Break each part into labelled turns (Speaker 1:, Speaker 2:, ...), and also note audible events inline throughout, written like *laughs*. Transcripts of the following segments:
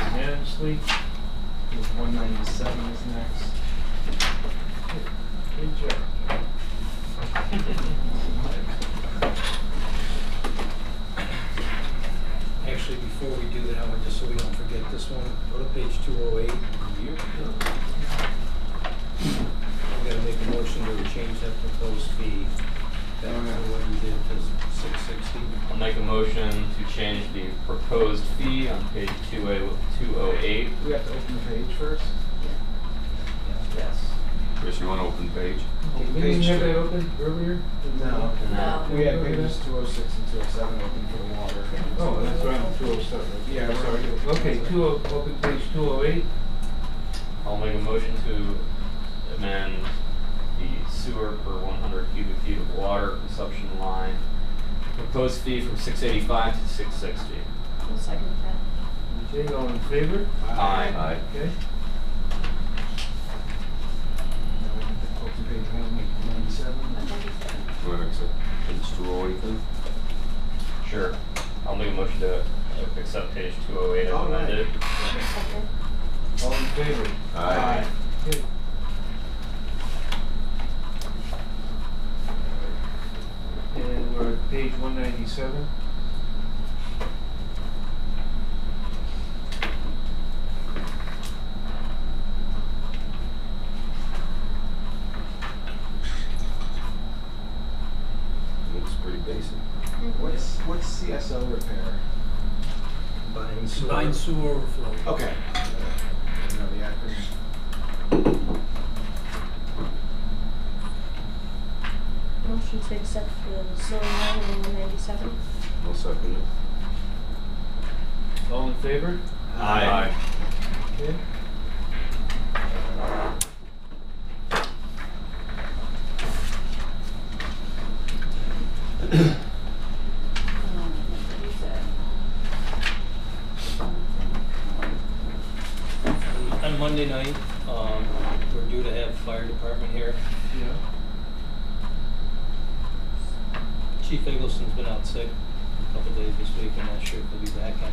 Speaker 1: next week.
Speaker 2: One ninety-seven is next.
Speaker 1: Good job.
Speaker 3: Actually, before we do that, I want, just so we don't forget this one, go to page two oh eight. I'm gonna make a motion to change that proposed fee back to what you did to six sixty.
Speaker 4: I'll make a motion to change the proposed fee on page two A, two oh eight.
Speaker 2: We have to open the page first.
Speaker 1: Yes.
Speaker 5: Chris, you want to open page?
Speaker 2: Open
Speaker 1: We didn't
Speaker 2: page
Speaker 1: have
Speaker 2: two.
Speaker 1: that open earlier?
Speaker 2: No.
Speaker 4: No.
Speaker 2: We had pages two oh six and two oh seven open for the water.
Speaker 1: Oh, that's right, two oh seven.
Speaker 2: Yeah, we're already open.
Speaker 1: Okay, two oh, open page two oh eight.
Speaker 4: I'll make a motion to amend the sewer per one hundred cubic feet of water consumption line. Proposed fee from six eighty-five to six sixty.
Speaker 6: I'll second that.
Speaker 1: Okay, all in favor?
Speaker 4: Aye.
Speaker 5: Aye.
Speaker 1: Okay.
Speaker 2: Now we have to Open page one, make
Speaker 6: One
Speaker 2: ninety-seven.
Speaker 6: ninety-seven.
Speaker 5: You want to accept page two oh eight then?
Speaker 4: Sure. I'll make a motion to uh, accept page two oh eight as
Speaker 2: All right.
Speaker 4: amended.
Speaker 6: I'll second.
Speaker 1: All in favor?
Speaker 5: Aye.
Speaker 1: Okay. And we're at page one ninety-seven.
Speaker 5: Looks pretty basic.
Speaker 6: Mhm.
Speaker 2: What's, what's CSO repair?
Speaker 3: Combined sewer.
Speaker 7: Combined sewer overflow.
Speaker 2: Okay. I don't know the acronym.
Speaker 6: Motion to accept the zoning line in one ninety-seven.
Speaker 5: I'll second it.
Speaker 1: All in favor?
Speaker 4: Aye.
Speaker 1: Okay.
Speaker 3: On Monday night, um, we're due to have fire department here.
Speaker 1: Yeah.
Speaker 3: Chief Eggleston's been out sick a couple days this week. I'm not sure if he'll be back on.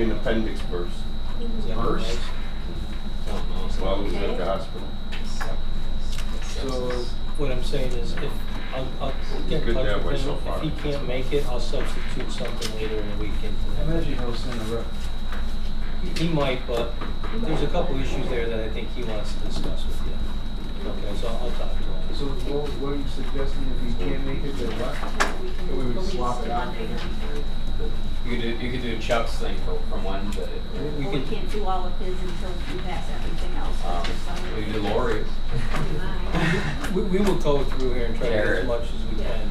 Speaker 5: An appendix burst.
Speaker 3: is that
Speaker 4: Burst?
Speaker 3: right?
Speaker 4: Don't know, so-
Speaker 5: While we was at
Speaker 6: Okay.
Speaker 5: the hospital.
Speaker 1: So,
Speaker 3: What I'm saying is if, I'll, I'll get in
Speaker 5: Good
Speaker 3: touch
Speaker 5: that way
Speaker 3: with
Speaker 5: so
Speaker 3: him. If
Speaker 5: far.
Speaker 3: he can't make it, I'll substitute something later in the weekend.
Speaker 2: I imagine he'll send a rep.
Speaker 3: He might, but there's a couple issues there that I think he wants to discuss with you. Okay, so I'll talk to him.
Speaker 2: So what, what are you suggesting if you can't make it, then what? That we would swap it out?
Speaker 4: You could do, you could do Chuck's thing for, from Wednesday.
Speaker 3: We
Speaker 8: Well, we
Speaker 3: could-
Speaker 8: can't do all of his until we pass everything else.
Speaker 3: Uh,
Speaker 4: Um, we could do Lori's.
Speaker 3: We, we will go through here and try to get
Speaker 4: Jared.
Speaker 3: as much as we can.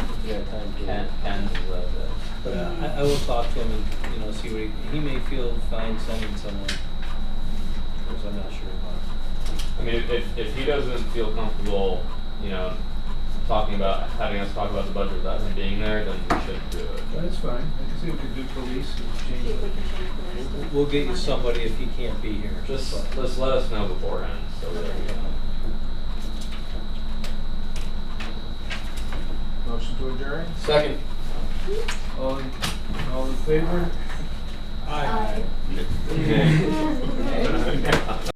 Speaker 3: If we have time to.
Speaker 4: Ken, Ken's is that the-
Speaker 3: But uh, I, I will talk to him and, you know, see what he, he may feel fine sending someone, because I'm not sure about.
Speaker 4: I mean, if, if he doesn't feel comfortable, you know, talking about, having us talk about the budget without him being there, then we should do it.
Speaker 2: That's fine. I can see we could do police and
Speaker 8: See
Speaker 2: change
Speaker 8: if we
Speaker 2: it.
Speaker 8: can change the list.
Speaker 3: We'll- We'll get you somebody if he can't be here.
Speaker 4: Just,
Speaker 3: But-
Speaker 4: just let us know beforehand, so that, you know.
Speaker 2: Motion to adjourn?
Speaker 4: Second.
Speaker 1: all, in- all in favor?
Speaker 8: Aye.
Speaker 5: *laughs* Okay.